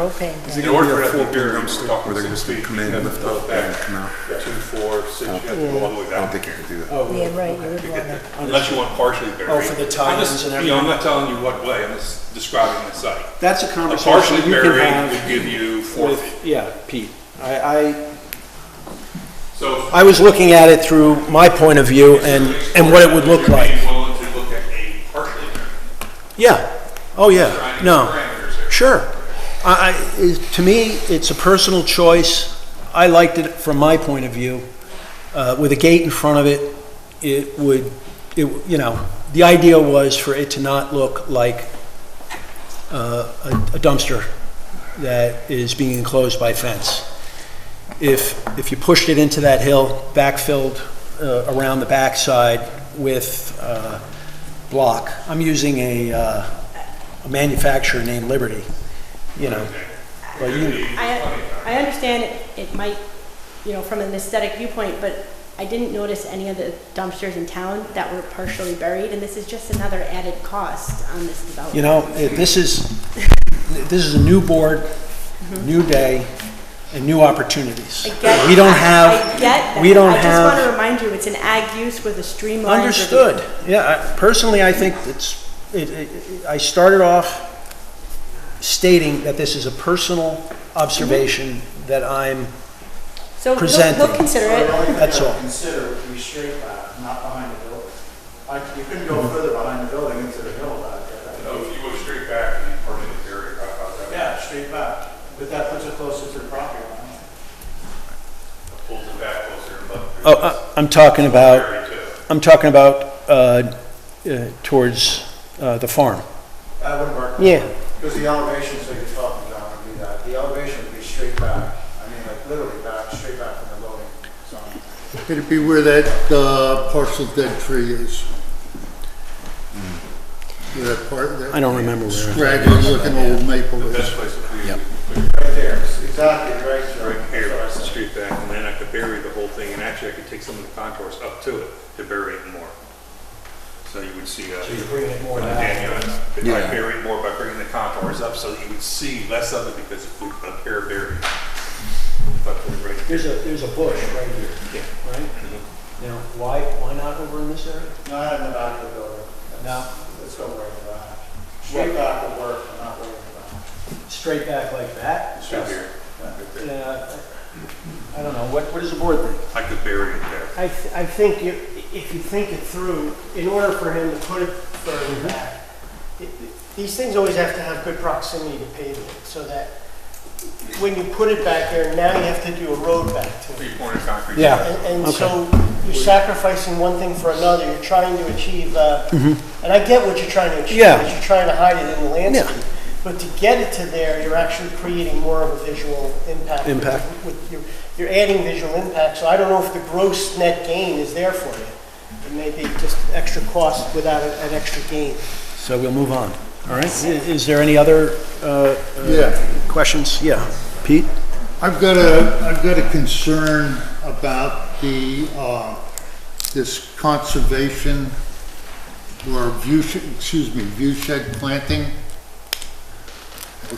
propane tank. In gonna order for be a it to full be here, period I'm stick, talking or they're six just gonna feet, come in, and then lift it pull up, back, and come out? two, four, six, you have to go all the way I don't down. think you can do that. Yeah, right, you would want to, Unless you want partially buried. Oh, for the I'm tie-ins just- and You know, I'm everything. not telling you what way, I'm just describing the site. That's a A conversation partially you can buried would have give you four feet. with, yeah, Pete. I, I, So I was looking at it through my point of view and, and what it would look Would you like. be willing to look at a partially buried? Yeah, oh, yeah, Trying to no. parameters there. Sure. I, I, is- to me, it's a personal choice. I liked it from my point of view. Uh, with a gate in front of it, it would, it, you know, the idea was for it to not look like uh, a a dumpster that is being enclosed by fence. If, if you pushed it into that hill, backfilled uh, around the backside with uh, block, I'm using a, uh, a manufacturer named Liberty, you know. Well, you- I, I understand it, it might, you know, from an aesthetic viewpoint, but I didn't notice any of the dumpsters in town that were partially buried, and this is just another added cost on this development. You know, it- this is, this is a new board, new day, and new opportunities. Mm-hmm. I get- We don't have. I get that. We don't I just want to have. remind you, it's an ag use with a streamlined. review. Understood. Yeah, I- personally, I think it's, it, it- I started off stating that this is a personal observation that I'm, So he'll, presenting. he'll consider Well, it. The only thing That's I would all. Consider would be straight back, not behind the building. Like, you couldn't go further behind the building into the hill back there. So if you go straight back and partially buried, how about that? Yeah, straight back, but that puts it closer to the property line. Pulls it back closer and up. oh, I- I'm talking about, Buried too. I'm talking about, uh, uh, towards, uh, the farm. That wouldn't work. Yeah. Because the elevations that you're talking about would be that, the elevation would be straight back. I mean, like literally back, straight back from the building, so. It'd be where that uh, parcel dead tree is. Where that part, Hmm. I that don't remember where. scraggly looking old maple The is. best place to put it, Right there, exactly, right there. right here, across the That's what I said. street back, and then I could bury the whole thing, and actually I could take some of the contours up to it to bury it more. So you would see, uh, Bring it more again, you know, if I Yeah. bury it more by bringing the contours up, so that you would see less of it because of the up here buried. But right here, There's a, there's a bush right here, right? Now, why, why not over in this area? Not in the back of the building. That's- Let's go right in the back. Straight back would work, but not right in the back. Straight back like that? it's right here, right there. Uh, Yeah, I don't know, what, what does the board think? I could bury it there. I, th- I think you, if you think it through, in order for him to put it further back, it- it- these things always have to have good proximity to pavement, so that when you put it back there, now you have to do a road back to it. Three corner concrete. And, and so you're sacrificing one thing for another, you're trying to achieve, uh, and I get what you're trying to achieve, Mm-hmm. Yeah. is you're trying to hide it in the Yeah. landscape. But to get it to there, you're actually creating more of a visual impact. Impact. With- You're you're adding visual impact, so I don't know if the gross net gain is there for you. It may be just extra cost without a- an extra gain. So we'll move on, all right? I- Is there any other, uh, Yeah, questions? Yeah, Pete? I've got a, I've got a concern about the, uh, this conservation or view, sh- excuse me, view shed planting.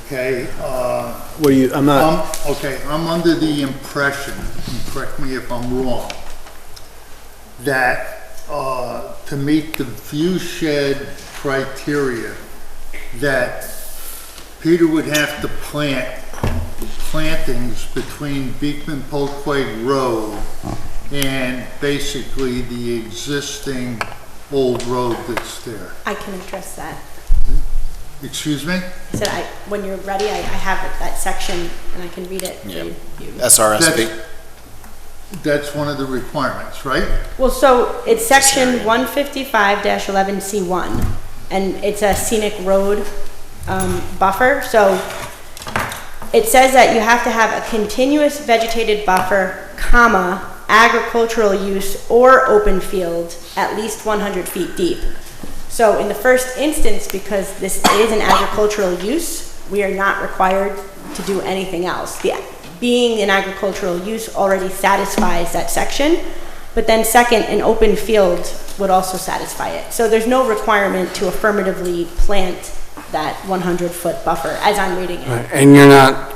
Okay, uh, What do you, I'm not, Um, okay, I'm under the impression, and correct me if I'm wrong, that, uh, to meet the view shed criteria, that Peter would have to plant plantings between Beekman Polkway Road and basically the existing old road that's there. I can address that. Excuse me? I said, I, when you're ready, I, I have it- that section, and I can read it. for you. That's, SRSB. that's one of the requirements, right? Well, so it's section one fifty-five eleven C one, and it's a scenic road, um, buffer, so it says that you have to have a continuous vegetated buffer, comma, agricultural use or open field at least one hundred feet deep. So in the first instance, because this is an agricultural use, we are not required to do anything else. The, being an agricultural use already satisfies that section, but then second, an open field would also satisfy it. So there's no requirement to affirmatively plant that 100-foot buffer, as I'm reading it. Right, And you're not